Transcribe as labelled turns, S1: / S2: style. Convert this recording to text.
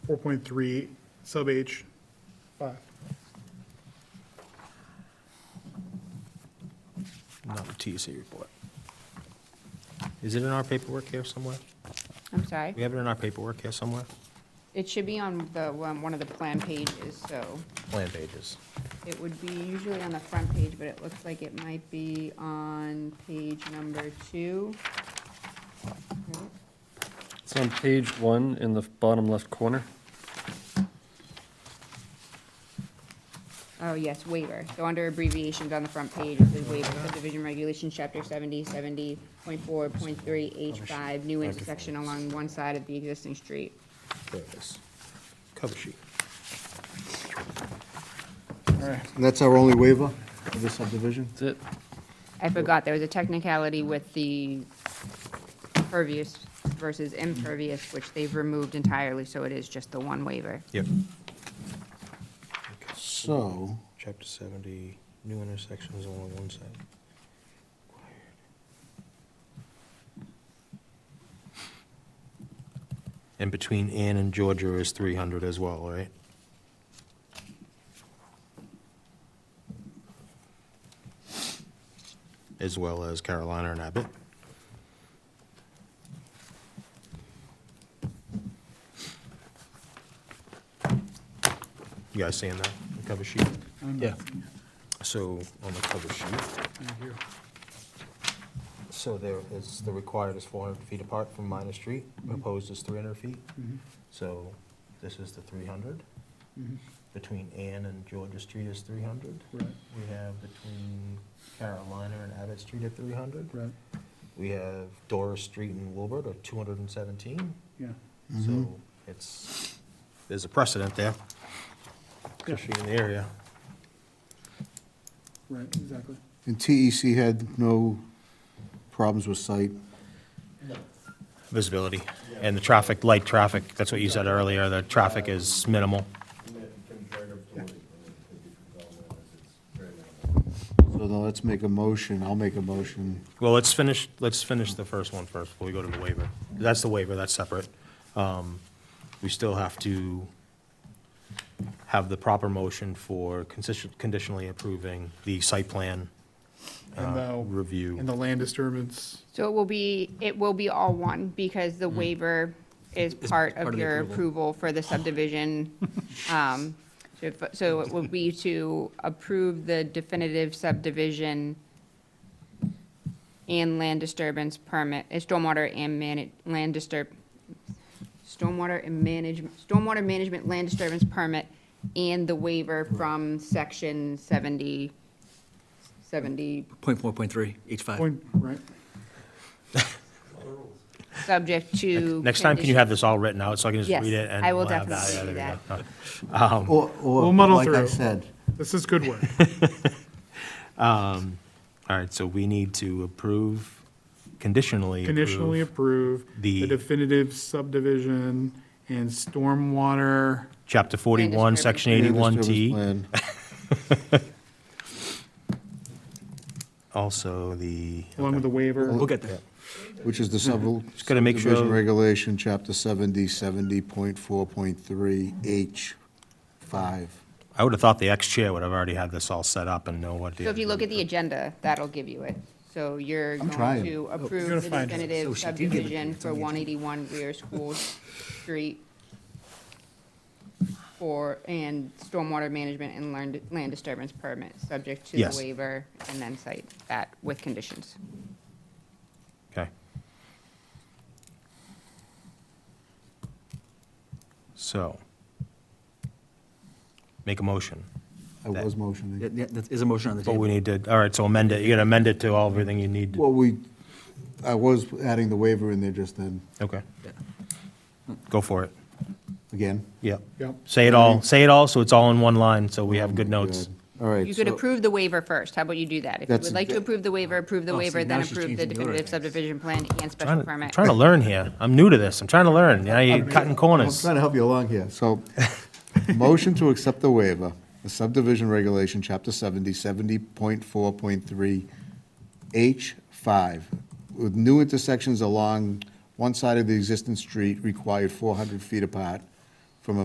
S1: 4.3 sub H 5.
S2: Not the TEC report. Is it in our paperwork here somewhere?
S3: I'm sorry.
S2: We have it in our paperwork here somewhere?
S3: It should be on the, um, one of the plan pages, so
S2: Plan pages.
S3: it would be usually on the front page, but it looks like it might be on page number two.
S4: It's on page one in the bottom left corner.
S3: Oh, yes, waiver. So under abbreviations on the front page, it says waiver subdivision regulations, chapter seventy, seventy point four, point three, H five, new intersection along one side of the existing street.
S2: There it is. Cover sheet.
S5: And that's our only waiver of the subdivision?
S4: That's it.
S3: I forgot, there was a technicality with the pervious versus impervious, which they've removed entirely, so it is just the one waiver.
S2: Yep.
S5: So,
S2: Chapter 70, new intersections along one side. And between Ann and Georgia is 300 as well, right? As well as Carolina and Abbott. You guys seeing that, the cover sheet?
S1: Yeah.
S2: So, on the cover sheet. So there is, the required is four hundred feet apart from minor street,
S1: Mm-hmm.
S2: proposed is three hundred feet. So this is the three hundred. Between Ann and Georgia Street is three hundred.
S1: Mm-hmm. Right,
S2: We have between Carolina and Abbott Street at three hundred.
S1: right,
S2: We have Doris Street and Wilbert are two hundred and seventeen.
S1: yeah. Mm-hmm.
S2: So it's, there's a precedent there,
S1: Yeah,
S2: especially in the area.
S1: right, exactly.
S5: and TEC had no problems with site?
S2: visibility. And the traffic, light traffic, that's what you said earlier, the traffic is minimal.
S5: So now let's make a motion, I'll make a motion.
S2: Well, let's finish, let's finish the first one first before we go to the waiver. That's the waiver, that's separate. Um, We still have to have the proper motion for consist- conditionally approving the site plan
S1: And
S2: uh,
S1: the- And
S2: review.
S1: the land disturbance,
S3: So it will be, it will be all one, because the waiver is part
S2: Mm. part
S3: of
S2: of the
S3: your approval for the subdivision. Um, So if- so it will be to approve the definitive subdivision and land disturbance permit, uh, stormwater and manage, land disturb, stormwater and management, stormwater management land disturbance permit and the waiver from section 70, 70
S6: Point four, point three, H five.
S1: point, right?
S3: subject to.
S2: Next time, can you have this all written out so I can just
S3: Yes,
S2: read it? and
S3: I will
S2: we'll have that.
S3: definitely
S2: Yeah,
S3: do
S2: there we go.
S5: Or,
S1: We'll
S5: or,
S1: muddle
S5: like I
S1: through.
S5: said,
S1: This is good work.
S2: All right, so we need to approve, conditionally approve.
S1: Conditionally approve the
S2: The-
S1: definitive subdivision and stormwater,
S2: Chapter 41,
S3: disturbance.
S2: Section
S5: land
S2: 81T,
S5: disturbance plan.
S2: also the,
S1: along with the waiver.
S6: We'll get there.
S5: Which is the sub-
S2: Just gotta make sure-
S5: subdivision regulation, chapter 70, 70.4.3, H 5.
S2: I would have thought the ex-chair would have already had this all set up and know what the.
S3: So if you look at the agenda, that'll give you it. So you're going
S5: trying.
S3: to
S1: You're
S3: approve the
S1: gonna find it.
S3: definitive
S6: So she did give it to you.
S3: subdivision for one eighty-one rear school street for, and stormwater management and land, land disturbance permit, subject to the
S2: Yes.
S3: waiver, and then cite that with conditions.
S2: Okay. So. Make a motion.
S5: I was motioning.
S6: That- that- that is a motion on the
S2: But we
S6: table.
S2: need to, all right, so amend it. You gotta amend it to all everything you need. to-
S5: Well, we, I was adding the waiver in there just then,
S2: Okay. Go for it.
S5: again.
S2: Yep.
S1: Yep.
S2: Say it all, say it all, so it's all in one line, so we have good notes.
S5: Good. All right.
S3: You could
S5: so-
S3: approve the waiver first. How about you do that? If you
S5: That's-
S3: would like to approve the waiver, approve the
S6: Oh, see,
S3: waiver, then
S6: now she's
S3: approve the
S6: changing the order.
S3: definitive subdivision plan and
S2: Trying
S3: special
S2: to- I'm
S3: permit.
S2: trying to learn here. I'm new to this. I'm trying to learn. Now you're cutting
S5: I'm
S2: corners.
S5: trying to help you along here. So, motion to accept the waiver, the subdivision regulation, chapter 70, 70.4.3, H5, with new intersections along one side of the existing street required 400 feet apart